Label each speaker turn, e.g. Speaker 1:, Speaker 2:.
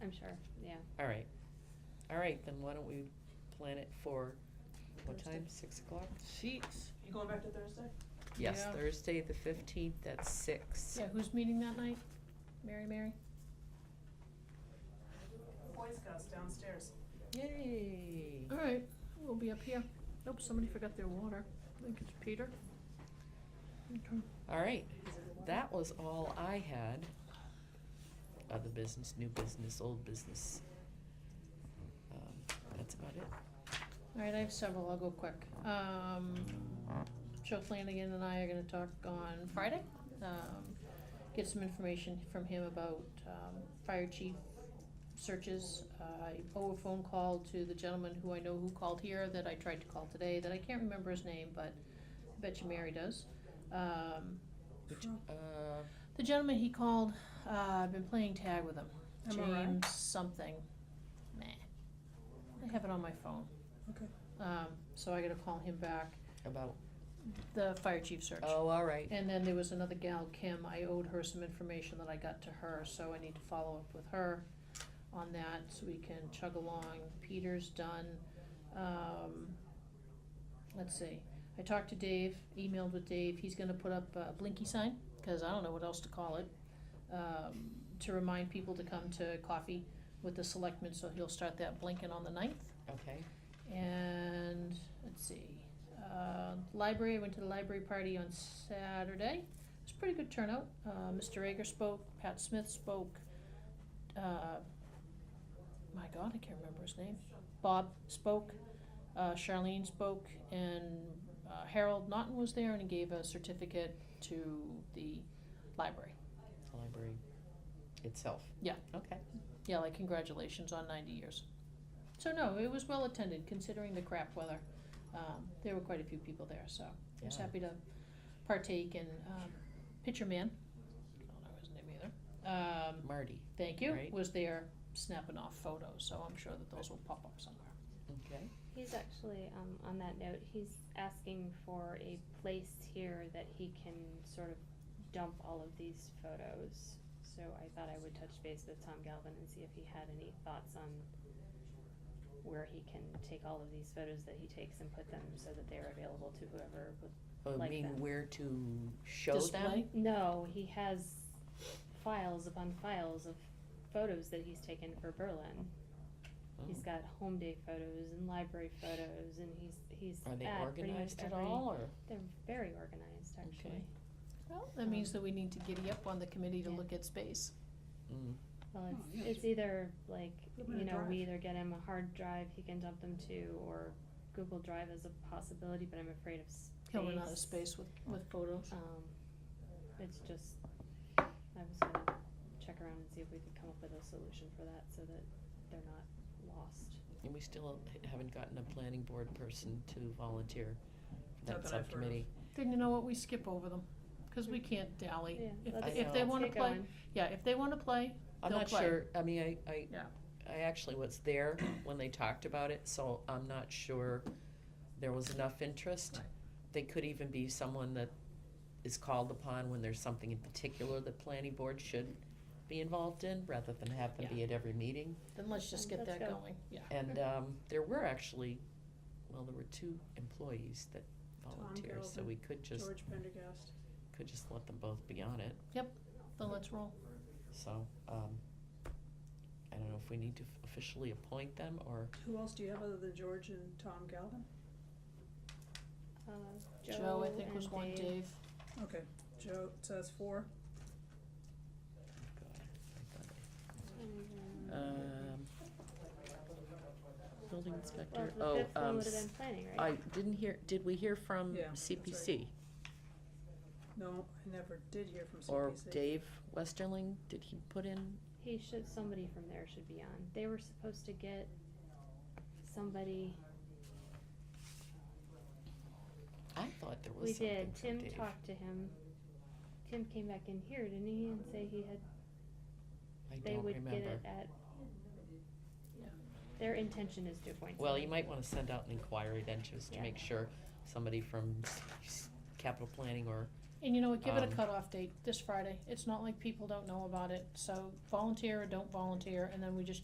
Speaker 1: I'm sure, yeah.
Speaker 2: All right, all right, then why don't we plan it for, what
Speaker 1: Thursday.
Speaker 2: time, six o'clock?
Speaker 3: Sheets.
Speaker 4: You going back to Thursday?
Speaker 2: Yes,
Speaker 3: Yeah.
Speaker 2: Thursday, the fifteenth, at six.
Speaker 5: Yeah, who's meeting that night? Mary, Mary?
Speaker 4: The Boy Scouts downstairs.
Speaker 2: Yay.
Speaker 5: All right, we'll be up here. Nope, somebody forgot their water. I think it's Peter. Okay.
Speaker 2: All right, that was all I had. Other business, new business, old business. Um, That's about it.
Speaker 5: All right, I have several, I'll go quick. Um, Joe Flanagan and I are gonna talk on Friday. Um, get some information from him about, um, fire chief searches. Uh, I owe a phone call to the gentleman who I know who called here that I tried to call today, that I can't remember his name, but I bet you Mary does. Um,
Speaker 2: Which,
Speaker 3: Oh,
Speaker 2: uh,
Speaker 5: the gentleman he called, uh, I've been playing tag with him.
Speaker 3: MRI?
Speaker 5: James something. Meh. I have it on my phone.
Speaker 3: Okay.
Speaker 5: Um, so I gotta call him back,
Speaker 2: about,
Speaker 5: the fire chief search.
Speaker 2: oh, all right,
Speaker 5: And then there was another gal, Kim, I owed her some information that I got to her, so I need to follow up with her on that, so we can chug along. Peter's done, um, let's see, I talked to Dave, emailed with Dave, he's gonna put up a blinky sign, cause I don't know what else to call it, um, to remind people to come to coffee with the selectmen, so he'll start that blinking on the ninth.
Speaker 2: okay.
Speaker 5: And let's see, uh, library, I went to the library party on Saturday. It was a pretty good turnout. Uh, Mr. Ager spoke, Pat Smith spoke, uh, my God, I can't remember his name. Bob spoke, uh, Charlene spoke, and uh, Harold Naughton was there and he gave a certificate to the library.
Speaker 2: The Library itself.
Speaker 5: Yeah.
Speaker 2: Okay,
Speaker 5: Yeah, like congratulations on ninety years. So no, it was well attended considering the crap weather. Um, there were quite a few people there, so I was
Speaker 2: Yeah.
Speaker 5: happy to partake in, um, Pitcher Man, I don't know his name either. Um,
Speaker 2: Marty,
Speaker 5: thank you,
Speaker 2: Right.
Speaker 5: was there snapping off photos, so I'm sure that those will pop up somewhere.
Speaker 2: okay,
Speaker 1: He's actually, um, on that note, he's asking for a place here that he can sort of dump all of these photos. So I thought I would touch base with Tom Galvin and see if he had any thoughts on where he can take all of these photos that he takes and put them so that they're available to whoever would.
Speaker 2: I
Speaker 1: Like
Speaker 2: Oh, mean,
Speaker 1: that.
Speaker 2: where to show them?
Speaker 5: Display?
Speaker 1: No, he has files upon files of photos that he's taken for Berlin. He's
Speaker 2: Oh,
Speaker 1: got home day photos and library photos, and he's he's
Speaker 2: Are they
Speaker 1: at pretty much
Speaker 2: organized at
Speaker 1: every-
Speaker 2: all, or?
Speaker 1: They're very organized, actually.
Speaker 2: Okay.
Speaker 5: Well, that means that we need to giddy up on the committee to
Speaker 1: Yeah.
Speaker 5: look at space.
Speaker 2: Mm,
Speaker 1: Well,
Speaker 3: Oh,
Speaker 1: it's,
Speaker 3: yeah,
Speaker 1: it's either like
Speaker 3: Put 'em in
Speaker 1: you
Speaker 3: a
Speaker 1: know
Speaker 3: drive.
Speaker 1: we either get him a hard drive he can dump them to, or Google Drive is a possibility, but I'm afraid of space.
Speaker 5: He'll run out of space Oh. with, with photos.
Speaker 1: Um, it's just I was gonna check around and see if we could come up with a solution for that so that they're not lost.
Speaker 2: And we still haven't gotten a planning board person to volunteer for
Speaker 3: Not
Speaker 2: that
Speaker 3: that I've heard of.
Speaker 2: subcommittee.
Speaker 5: Then you know what, we skip over them, cause we can't dally.
Speaker 1: Yeah,
Speaker 5: If,
Speaker 1: let's-
Speaker 5: if they
Speaker 2: let's
Speaker 5: wanna
Speaker 1: get
Speaker 5: play,
Speaker 1: going.
Speaker 5: yeah, if they wanna play,
Speaker 2: I'm
Speaker 5: They'll
Speaker 2: not
Speaker 5: play.
Speaker 2: sure, I mean, I, I,
Speaker 5: Yeah.
Speaker 2: I actually was there when they talked about it, so I'm not sure there was enough interest.
Speaker 5: Right.
Speaker 2: They could even be someone that is called upon when there's something in particular the planning board should be involved in, rather than have them be at every meeting.
Speaker 5: Then let's just
Speaker 1: Um,
Speaker 5: get
Speaker 1: let's
Speaker 5: that
Speaker 1: go.
Speaker 5: going, yeah.
Speaker 2: And, um, there were actually, well, there were two employees that
Speaker 3: Tom
Speaker 2: volunteered, so
Speaker 3: Galvin,
Speaker 2: we could just,
Speaker 3: George Pendergast.
Speaker 2: could just let them both be on it.
Speaker 5: Then let's roll.
Speaker 2: So, um, I don't know if we need to officially appoint them or,
Speaker 3: Who else do you have other than George and Tom Galvin?
Speaker 1: Uh, Joe,
Speaker 5: Joe, I think was
Speaker 1: and
Speaker 5: one,
Speaker 1: Dave.
Speaker 5: Dave.
Speaker 3: Okay, Joe, so that's four.
Speaker 2: God, I thought
Speaker 1: and,
Speaker 2: Um, building
Speaker 1: Well,
Speaker 2: inspector,
Speaker 1: the
Speaker 2: oh,
Speaker 1: fifth one
Speaker 2: um,
Speaker 1: would have been planning, right?
Speaker 2: I didn't hear, did we hear from
Speaker 3: Yeah, that's right.
Speaker 2: CPC?
Speaker 3: No, I never did hear from CPC.
Speaker 2: Or Dave Westerling, did he put in?
Speaker 1: He should, somebody from there should be on. They were supposed to get somebody,
Speaker 2: I thought there
Speaker 1: we
Speaker 2: was something
Speaker 1: did,
Speaker 2: from
Speaker 1: Tim
Speaker 2: Dave.
Speaker 1: talked to him. Tim came back in here, didn't he, and say he had,
Speaker 2: I
Speaker 1: they
Speaker 2: don't
Speaker 1: would get
Speaker 2: remember.
Speaker 1: it at. Their intention is to appoint.
Speaker 2: Well,
Speaker 1: somebody.
Speaker 2: you might wanna send out an inquiry then, just to
Speaker 1: Yeah.
Speaker 2: make sure somebody from capital planning or,
Speaker 5: And you know what, give it a
Speaker 2: Um,
Speaker 5: cutoff date, this Friday. It's not like people don't know about it, so volunteer or don't volunteer, and then we just